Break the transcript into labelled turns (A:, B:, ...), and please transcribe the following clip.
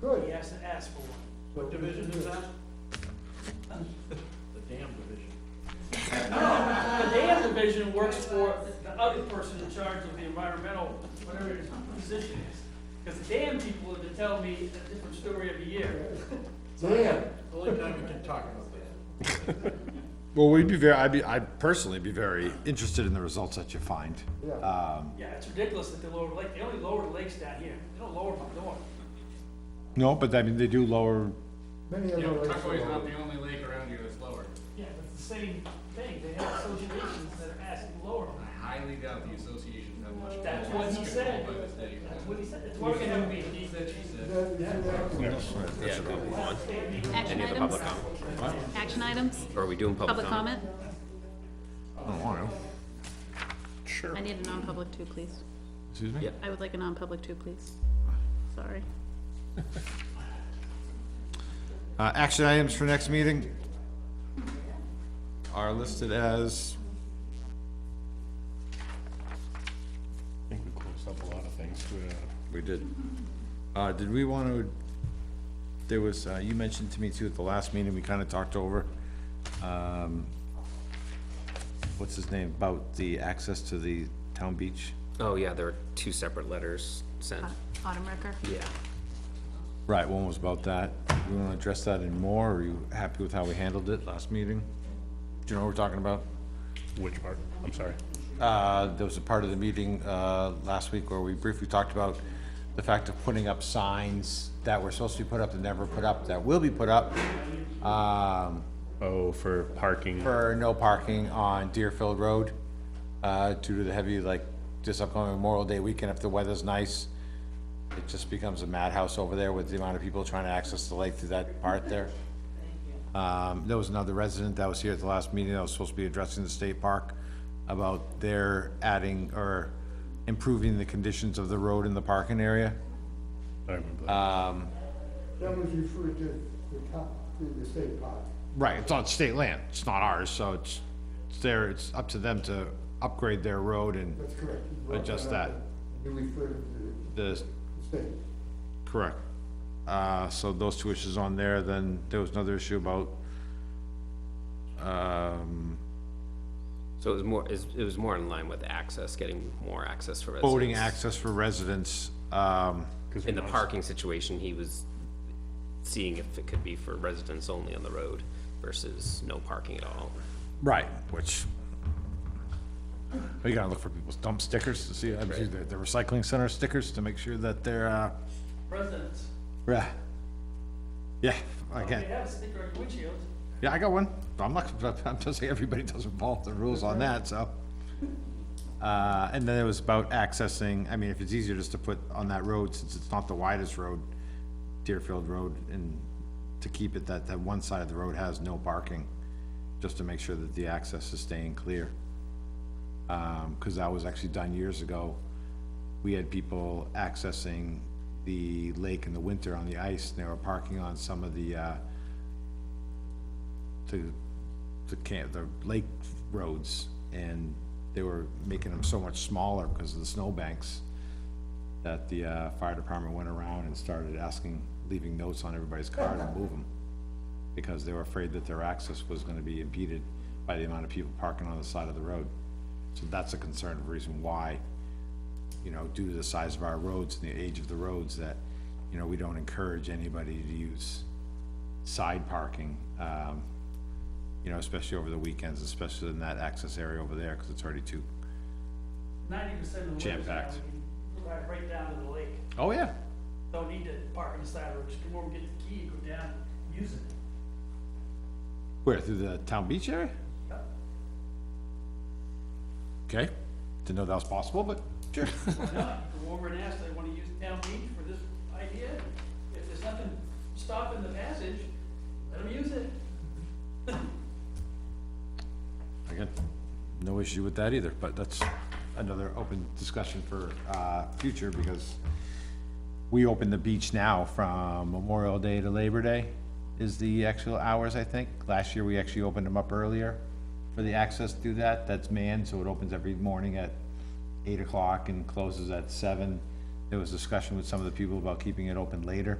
A: He
B: Good.
A: has to ask for one.
C: What division is that? The damn division.
A: No, the dam division works for the other person in charge of the environmental, whatever his position is. Because the dam people are to tell me a different story every year.
B: Damn.
C: Only time we can talk about that.
D: Well, we'd be very, I'd be, I'd personally be very interested in the results that you find.
B: Yeah.
D: Um,
A: Yeah, it's ridiculous that they lower the lake, they only lower the lakes down here, they don't lower them north.
D: No, but I mean, they do lower,
B: Many
E: You
B: other
E: know,
B: lakes.
E: Tuckaway's
B: are
E: not
B: lower.
E: the only lake around here that's lower.
A: Yeah, but it's the same thing, they have associations that are asking to lower
E: I
A: them.
E: highly doubt the association have much.
A: That's
E: control
A: what he said.
E: by this day.
A: That's what he said, that's why we're gonna have a
E: He
A: meeting.
E: said, she said.
B: That- that-
F: Yeah, do we want
G: Action
F: any other
G: items?
F: public comment?
G: Action items?
F: Or are we doing public
G: Public
F: comment?
G: comment?
D: oh, I don't know. Sure.
G: I need a non-public too, please.
D: Excuse me?
F: Yeah.
G: I would like a non-public too, please. Sorry.
D: Uh, action items for next meeting are listed as,
H: I think we closed up a lot of things to,
D: we did, uh, did we want to, there was, uh, you mentioned to me too at the last meeting, we kind of talked over, um, what's his name, about the access to the town beach?
F: Oh, yeah, there are two separate letters
G: Uh.
F: sent.
G: Autumn Recker?
F: Yeah.
D: Right, one was about that. We want to address that in more, or are you happy with how we handled it last meeting? Do you know what we're talking about?
H: which part, I'm sorry.
D: Uh, there was a part of the meeting, uh, last week where we briefly talked about the fact of putting up signs that were supposed to be put up that never put up, that will be put up, um,
H: Oh, for parking.
D: for no parking on Deerfield Road, uh, due to the heavy, like, this upcoming Memorial Day weekend, if the weather's nice. It just becomes a madhouse over there with the amount of people trying to access the lake through that part there. Um, there was another resident that was here at the last meeting that was supposed to be addressing the state park about their adding or improving the conditions of the road in the parking area.
H: I remember
F: uh,
H: that.
B: That was referred to the top, to the state park.
D: Right, it's on state land, it's not ours, so it's, it's there, it's up to them to upgrade their road and
B: That's correct. You brought
D: Adjust
B: up
D: that.
B: and You referred to
D: the
B: the state.
D: Correct. Uh, so those two issues on there, then there was another issue about, um,
F: So it was more, is- it was more in line with access, getting more access for residents.
D: boating access for residents, um,
H: 'cause
F: In the
H: we know-
F: parking situation, he was seeing if it could be for residents only on the road versus no parking at all.
D: right, which you gotta look for people's dump stickers to see, I mean, the, the recycling center stickers to make sure that they're, uh,
A: Residents,
D: yeah. Yeah,
A: they
D: again,
A: have a sticker on your windshield,
D: yeah, I got one, I'm not, I'm just saying everybody doesn't follow the rules on that, so. Uh, and then it was about accessing, I mean, if it's easier just to put on that road, since it's not the widest road, Deerfield Road, and to keep it that, that one side of the road has no parking, just to make sure that the access is staying clear. Um, cause that was actually done years ago. We had people accessing the lake in the winter on the ice, and they were parking on some of the, uh, to the camp, the lake roads, and they were making them so much smaller because of the snowbanks that the, uh, fire department went around and started asking, leaving notes on everybody's car to move them. Because they were afraid that their access was gonna be impeded by the amount of people parking on the side of the road. So that's a concern of reason why, you know, due to the size of our roads and the age of the roads, that, you know, we don't encourage anybody to use side parking, um, you know, especially over the weekends, especially in that access area over there, because it's already too.
A: ninety percent of the.
D: Jam packed.
A: Right, right down to the lake,
D: Oh, yeah.
A: don't need to park on the side of the road, just come over, get the key, go down, use it.
D: Where, through the town beach area?
A: Yep.
D: Okay, didn't know that was possible, but sure.
A: not, go over and ask, they wanna use town beach for this idea, if there's nothing stopping the passage, let them use it.
D: Again, no issue with that either, but that's another open discussion for, uh, future, because we open the beach now from Memorial Day to Labor Day is the actual hours, I think. Last year, we actually opened them up earlier for the access through that. That's manned, so it opens every morning at eight o'clock and closes at seven. There was discussion with some of the people about keeping it open later.